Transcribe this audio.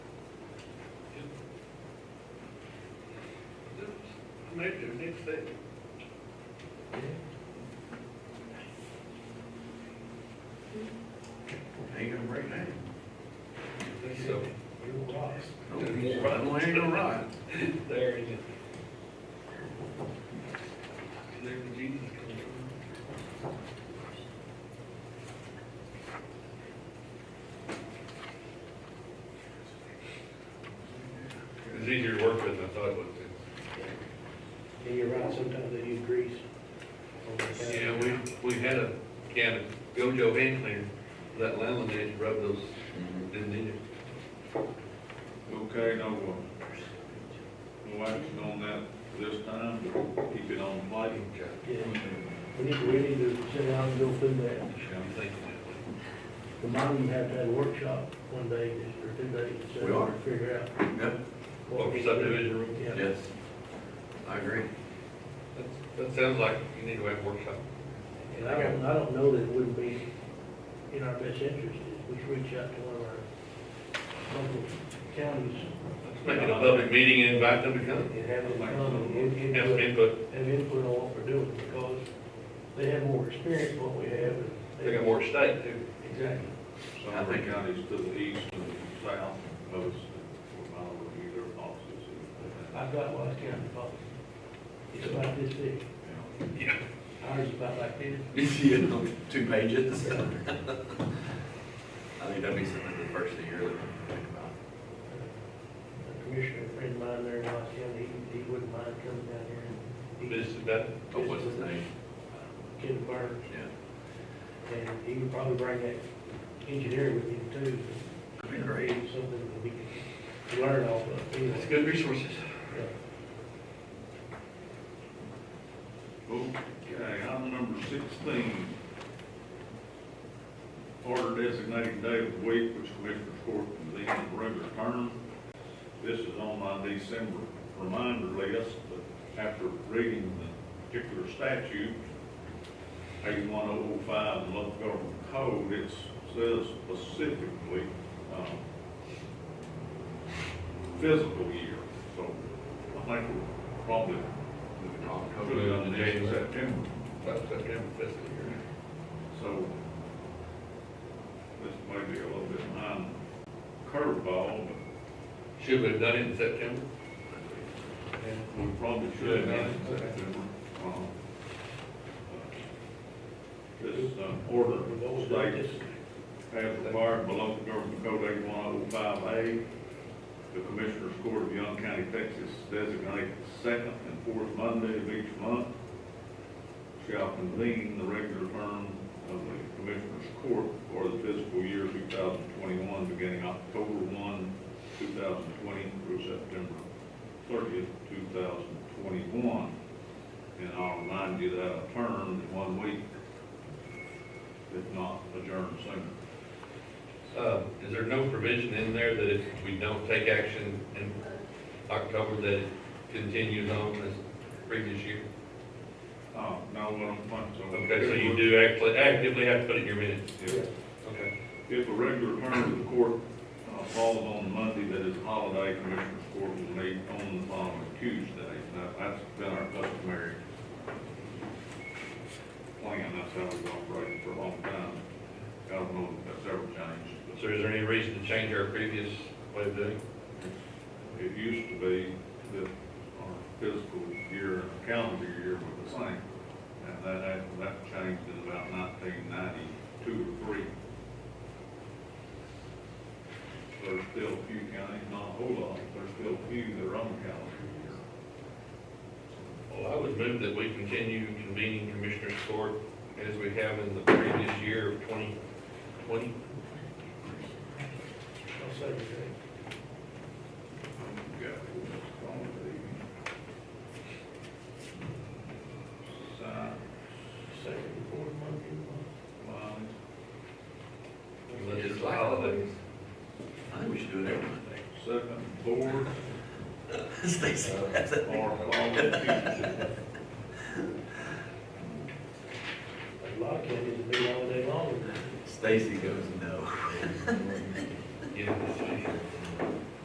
negative next thing. Ain't gonna break down. So- You're right. No, we ain't gonna ride. There it is. There Jesus comes from. It's easier to work with than I thought it would be. Yeah, you're right, sometimes they use grease. Yeah, we, we had a can of Gojo hand cleaner, that landline had to rub those, Mm-hmm. didn't need it. Okay, no, uh, no action on that this time, but keep it on plate. Okay. Yeah, we need, we need to sit down and go through that. I'm thinking that The mom, you have to have a workshop one day or two days. to sit We down are. and Figure out. Yep, way. Or we- subdivision room. Yeah, yes. I agree. That's- That sounds like you need to have a workshop. and I don't, I don't know that it would be in our best interest if we reach out to one of our local counties Let's make it a public meeting and invite them to come. and have them come and give Have some input, input, have input on what we're doing because they have more experience than what we have. and they got more state too. Exactly. Some I of the think- counties to the east and the south, most, we're not reviewing their policies. I've got Wise County policy. It's about this big. Yeah. Ours is about like this. Yeah, two pages. I think that'd be something the first of the year that we can think about. A commissioner friend of mine there in Wise County, he, he wouldn't mind coming down here and. he- This is that, Oh, what's his name? Uh, Ken Burns, Yeah. and he would probably bring that engineer with him too. That'd be great. Something that we can learn off of. you know. that's good resources. Yeah. Okay, item number sixteen. Order designating day of the week which Commissioner's Court convenes in regular term. This is on my December reminder list, but after reading the particular statute, eighty-one oh oh five, the local government code, it says specifically, um, physical year, so I think we're probably Moving on. put it on the date of September. About September fiscal year. So this may be a little bit behind curveball, but Should we have done it in September? we probably should have done it in September. Um, This uh, order states as required by local government code eighty-one oh five A, the Commissioners Court of Young County, Texas designates the second and fourth Monday of each month shall convene the regular term of the Commissioners Court for the fiscal year two thousand twenty-one, beginning October one, two thousand twenty through September thirtieth, two thousand twenty-one. And I'll remind you that a term in one week, if not adjourned sooner. Um, Is there no provision in there that if we don't take action in October, that it continues on as previous year? Oh, no, I don't think so. Okay, so you do actually actively have to put it in your minutes. If- Okay. If a regular term of the court uh, falls on Monday that is a holiday, Commissioners Court will meet on the following Tuesday. Now, that's been our customary plan, that's how we've operated for a long time. I don't know if that's ever changed, but So is there any reason to change our previous way of doing? it? It used to be that our fiscal year and calendar year were the same, and that, that- that changed in about nineteen ninety-two or three. There's still a few counties, not a whole lot, but there's still a few that are on the calendar year. Well, I would move that we continue convening Commissioners Court as we have in the previous year of 2020. I'll say that. We've got what's called the sign Second and fourth Monday of the lines. Unless it's a holiday. I think we should do it every Monday. second board Stacy, that's it. or following Tuesday. month. A lot of counties have been all day long. Stacy goes, no. Yeah,